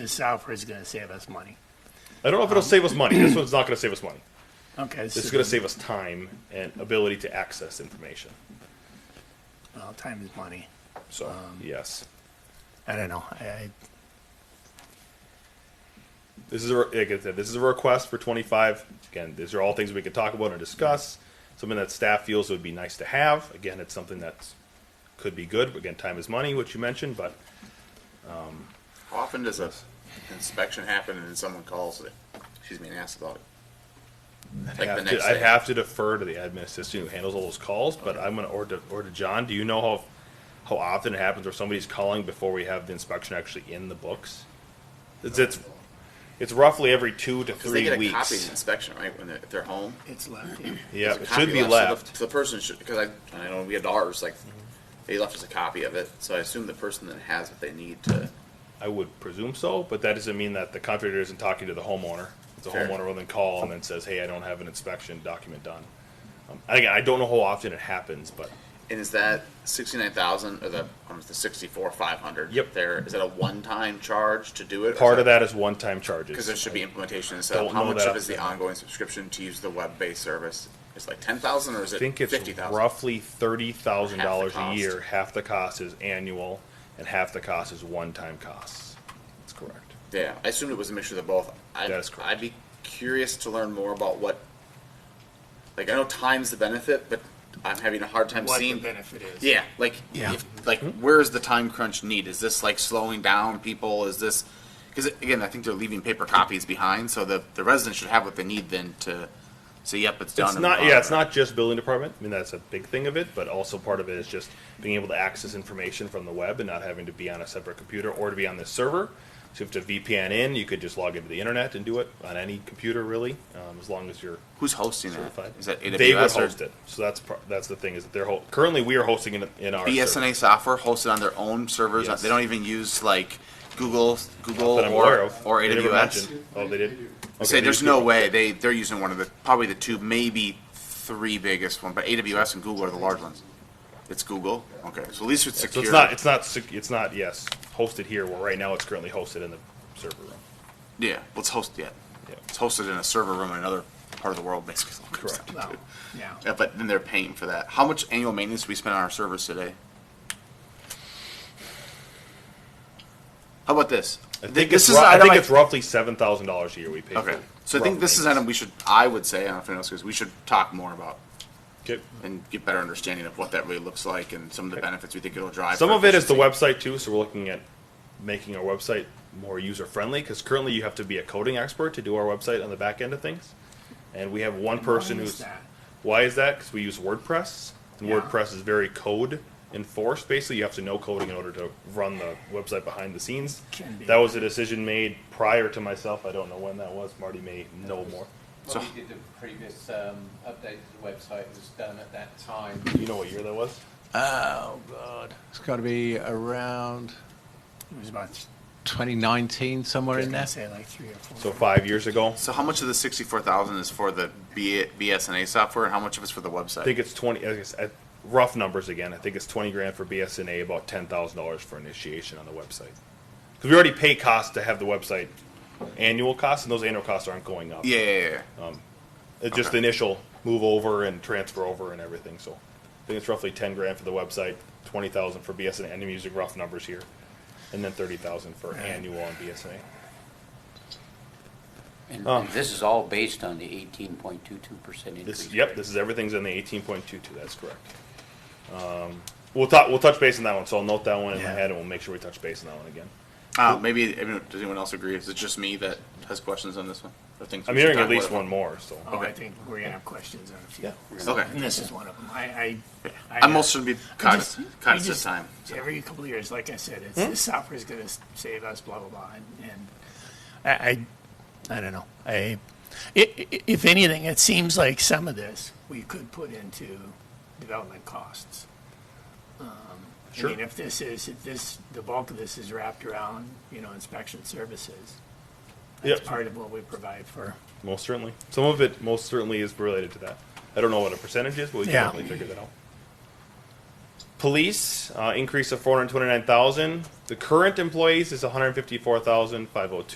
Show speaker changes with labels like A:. A: the software is going to save us money.
B: I don't know if it'll save us money. This one's not going to save us money.
A: Okay,
B: This is going to save us time and ability to access information.
A: well, time is money.
B: So yes,
A: I don't know. I, I
B: this is a, re- like I said, this is a request for 25. Again, these are all things we could talk about and discuss. Something that staff feels would be nice to have. Again, it's something that's could be good. Again, time is money, which you mentioned, but
C: How often does a inspection happen and then someone calls it, excuse me, and asks about it? Like the
B: have
C: next
B: to, I'd
C: day.
B: have to defer to the admin assistant who handles all those calls, but I'm gonna or to or to John. Do you know how how often it happens where somebody's calling before we have the inspection actually in the books? It's it's, it's roughly every two to
C: Because they
B: three
C: get a
B: weeks.
C: copy of the inspection, right, when they're, if they're home?
A: it's left. Yeah.
B: Yeah,
C: There's
B: it
C: a copy
B: should be
C: so the-
B: left.
C: The person should, because I, I know we had ours, like, they left us a copy of it, so I assume the person then has what they need to,
B: I would presume so, but that doesn't mean that the contractor isn't talking to the homeowner. The
C: Fair.
B: homeowner will then call and then says, "Hey, I don't have an inspection document done." Um, and again, I don't know how often it happens, but
C: and is that sixty-nine thousand, or the, um, the sixty-four, five hundred?
B: Yep.
C: There, is that a one-time charge to do it? or is
B: part of
C: that-
B: that is one-time charges.
C: Because there should be implementation
B: Don't
C: instead of how
B: know
C: much
B: that
C: of is the
B: offhand.
C: ongoing subscription to use the web-based service? It's like ten thousand or is
B: I
C: it
B: think it's
C: fifty thousand?
B: roughly thirty thousand
C: Half
B: dollars
C: the
B: a
C: cost.
B: year. Half the cost is annual, and half the cost is one-time costs. That's correct.
C: Yeah, I assumed it was a mixture of both. I'd,
B: That is correct.
C: I'd be curious to learn more about what, like, I know time's the benefit, but I'm having a hard time
A: What
C: seeing.
A: the benefit is?
C: Yeah, like,
A: Yeah.
C: if, like,
B: Hmm?
C: where's the time crunch need? Is this like slowing down people? Is this because again, I think they're leaving paper copies behind, so the the residents should have what they need then to say, yep, it's done.
B: It's
C: and
B: not.
C: move on.
B: Yeah, it's not just building department. I mean, that's a big thing of it, but also part of it is just being able to access information from the web and not having to be on a separate computer or to be on this server. So if you have to VPN in, you could just log into the internet and do it on any computer, really, um, as long as you're
C: Who's hosting
B: certified.
C: that? Is that AWS
B: they would
C: or
B: host it. So that's par- that's the thing is that they're ho- currently we are hosting it in our server.
C: BSNA software hosted on their own servers.
B: Yes.
C: They don't even use like Google, Google
B: that I'm
C: or,
B: aware of.
C: or
B: They never
C: AWS.
B: mentioned- Oh, they did.
C: I
B: Okay,
C: say
B: they
C: there's
B: do.
C: no way they they're using one of the probably the two maybe three biggest one, but AWS and Google are the large ones. It's Google. Okay, so at least it's
B: So
C: secure.
B: it's not. It's not. sec- It's not. Yes, hosted here. Well, right now it's currently hosted in the server room.
C: yeah, let's host it.
B: Yeah.
C: It's hosted in a server room in another part of the world, basically.
B: Correct.
A: Well, yeah.
C: Yeah, but then they're paying for that. How much annual maintenance do we spend on our servers today? How about this?
B: I
C: Th-
B: think
C: this
B: it's.
C: is
B: rou-
C: an
B: I
C: item
B: think it's roughly seven thousand dollars a year we pay.
C: Okay,
B: for
C: so I think this is an item we should, I would say, I don't know if anyone else goes, we should talk more about
B: Okay.
C: and get better understanding of what that really looks like and some of the benefits we think it'll drive.
B: Some
C: for
B: of it is the
C: efficiency.
B: website too, so we're looking at making our website more user friendly because currently you have to be a coding expert to do our website on the back end of things, and we have one person
A: Why is
B: who's.
A: that?
B: Why is that? Because we use WordPress, and
A: Yeah.
B: WordPress is very code enforced. Basically, you have to know coding in order to run the website behind the scenes.
A: Can be.
B: That was a decision made prior to myself. I don't know when that was. Marty may know more.
D: When we did the previous um, update to the website, it was done at that time.
B: Do you know what year that was?
D: Oh, God. It's got to be around
A: It was about.
D: twenty nineteen, somewhere
A: I was
D: in
A: gonna
D: there.
A: say like three or four.
B: So five years ago.
C: So how much of the sixty-four thousand is for the B- BSNA software, and how much of it's for the website?
B: I think it's twenty. I guess, at rough numbers again. I think it's twenty grand for BSNA, about ten thousand dollars for initiation on the website. Because we already pay costs to have the website annual costs, and those annual costs aren't going up.
C: yeah, yeah, yeah, yeah.
B: Oh. it's just the initial move over and transfer over and everything. So I think it's roughly ten grand for the website, twenty thousand for BSNA, and I'm using rough numbers here, and then thirty thousand for annual on BSNA.
E: And
B: Oh.
E: this is all based on the 18.22% increase.
B: This, yep, this is, everything's in the eighteen point two two, that's correct. Um, We'll talk, we'll touch base on that one, so I'll note that one in my
A: Yeah.
B: head, and we'll make sure we touch base on that one again.
C: Uh, maybe I mean, does anyone else agree? Is it just me that has questions on this one? Or things
B: I'm
C: we should
B: hearing
C: talk
B: at least
C: about?
B: one more, so.
A: Oh, I
C: Okay.
A: think we're gonna have questions on a few.
B: Yeah.
C: Okay.
A: And this is one of them. I. I. I
C: I'm also should be
A: I
C: conscious,
A: just-
C: conscious
A: I just-
C: of time. so.
A: Every couple of years, like I said, it's this software is going to save us, blah blah blah, and, and I, I, I don't know. I, i- i- if anything, it seems like some of this we could put into development costs. Um,
B: Sure.
A: I mean, if this is if this the bulk of this is wrapped around you know inspection services, that's
B: Yep.
A: part of what we provide for.
B: Most certainly. Some of it most certainly is related to that. I don't know what a percentage is, but we can
A: Yeah.
B: definitely figure that out. Police, uh, increase of four hundred twenty-nine thousand. The current employees is one hundred fifty-four thousand five hundred two.